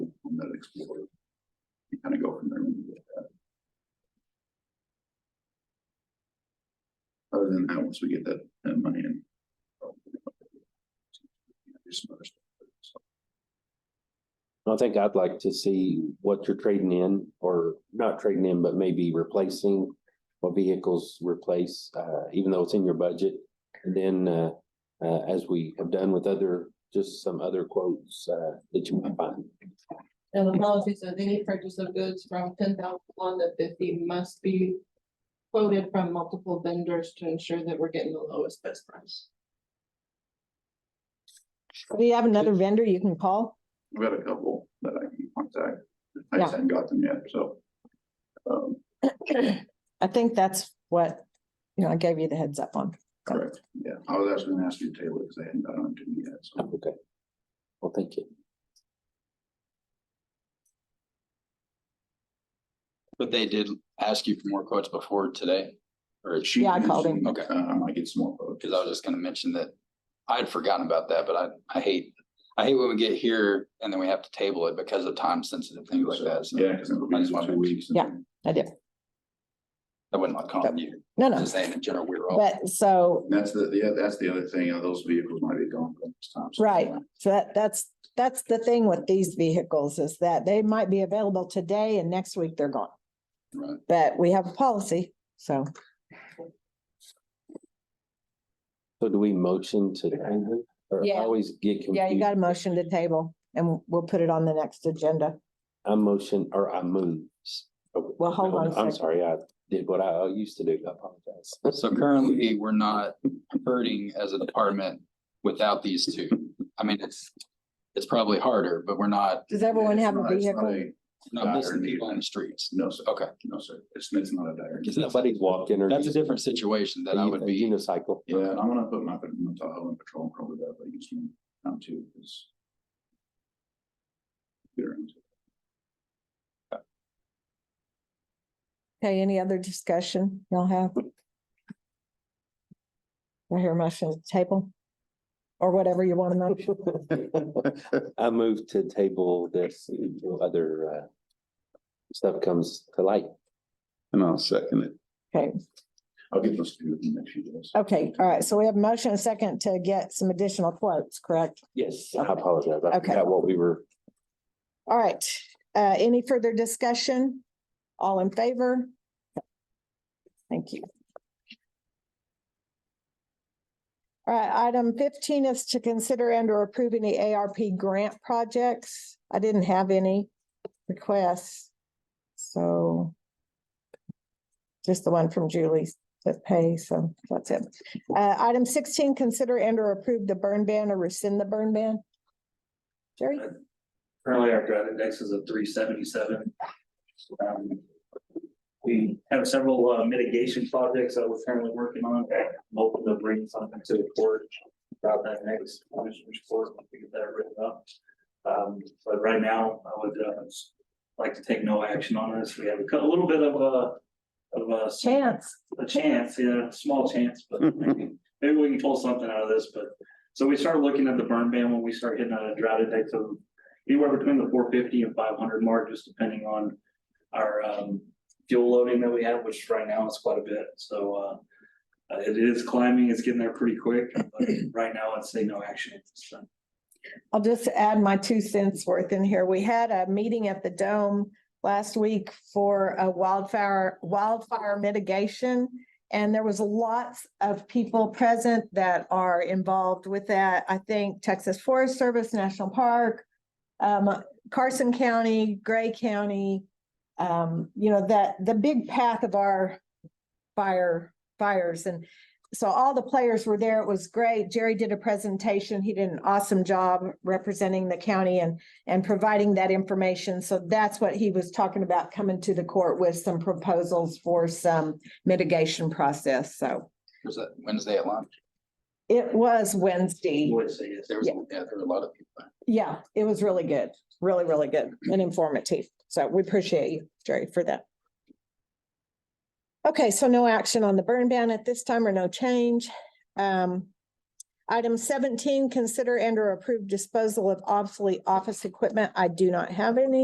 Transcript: explore. You kind of go from there. when you get that. Other than that, once we get that, that money in. do some other stuff. I think I'd like to see what you're trading in or not trading in, but maybe replacing what vehicles replace, uh, even though it's in your budget. And then, uh, uh, as we have done with other, just some other quotes, uh, that you might find. And the policy says any purchase of goods from ten thousand one to fifty must be quoted from multiple vendors to ensure that we're getting the lowest best price. Do you have another vendor you can call? I've got a couple that I can contact. I Yeah. just haven't got them yet, so. Um, I think that's what, you know, I gave you the heads up on. correct, yeah, I was actually gonna ask you to table it because I hadn't gotten to me yet, so. Okay. Well, thank you. But they did ask you for more quotes before today, or, She Yeah, I called him. mentioned, Okay. Uh, I might get some more quotes. because I was just gonna mention that I had forgotten about that, but I, I hate, I hate when we get here and then we have to table it because of time sensitive things like that. So Yeah, because it'll I be just wanted to- two weeks. and Yeah. then- I did. I wouldn't like calling you, No, no, just saying in general, we we're all. but so, And That's the, yeah, that's the other thing, uh, those vehicles might be gone by this time. so- right. So that, that's, that's the thing with these vehicles is that they might be available today and next week they're gone. Right. But we have a policy, so So do we motion to? table Or I Yeah. always get confused. yeah, you got a motion to table and we'll put it on the next agenda. I motion or I move. Well, hold on a I'm second. sorry, I did what I used to do. I apologize. So currently, we're not hurting as a department without these two. I mean, it's, it's probably harder, but we're not, Does everyone It's have a not- it's not vehicle? a- not missing people on the streets. No, sir. Okay. No, sir. It's, it's not a dire. Because that's, Nobody's walking or. that's a using different situation a that I would be. Unicycle. Yeah, I'm gonna put my, my Tahoe in patrol and probably that, but you can, um, too, because. Okay, any other discussion y'all have? I hear a motion to table or whatever you want to motion. I move to table this until other uh stuff comes to light. And I'll second it. Okay. I'll get those to you in the next few days. Okay, all right, so we have a motion and a second to get some additional quotes, correct? Yes, I apologize. I Okay. forgot what we were. All right, uh, any further discussion? All in favor? Thank you. All right, item fifteen is to consider and or approve any ARP grant projects. I didn't have any requests. So just the one from Julie's that pay, so that's it. Uh, item sixteen, consider and or approve the burn ban or rescind the burn ban. Jerry? Currently, our drought index is a three seventy-seven. Um, We have several uh, mitigation projects that we're currently working on, hoping to bring something to the court about that next commissioner's court, we get that written up. Um, but right now, I would uh, like to take no action on this, we have a cou- a little bit of a of a. Chance. a chance, yeah, a small chance, but maybe, maybe we can pull something out of this, but. So we start looking at the burn ban when we start hitting a drought index of anywhere between the four fifty and five hundred mark, just depending on. Our um fuel loading that we have, which right now is quite a bit, so uh. uh, It is climbing, it's getting there pretty quick, but right now I'd say no action. at this time. I'll just add my two cents worth in here. We had a meeting at the Dome last week for a wildfire, wildfire mitigation. And there was lots of people present that are involved with that. I think Texas Forest Service, National Park, um, Carson County, Gray County, um, you know, that, the big path of our fire, fires. And so all the players were there. It was great. Jerry did a presentation. He did an awesome job representing the county and, and providing that information. So that's what he was talking about, coming to the court with some proposals for some mitigation process. So Was that Wednesday at lunch? it was Wednesday. Would say yes. There was, Yeah. yeah, there were a lot of people. there. Yeah, it was really good, really, really good and informative. So we appreciate you, Jerry, for that. Okay, so no action on the burn ban at this time or no change. Um, item seventeen, consider and or approve disposal of obsolete office equipment. I do not have any.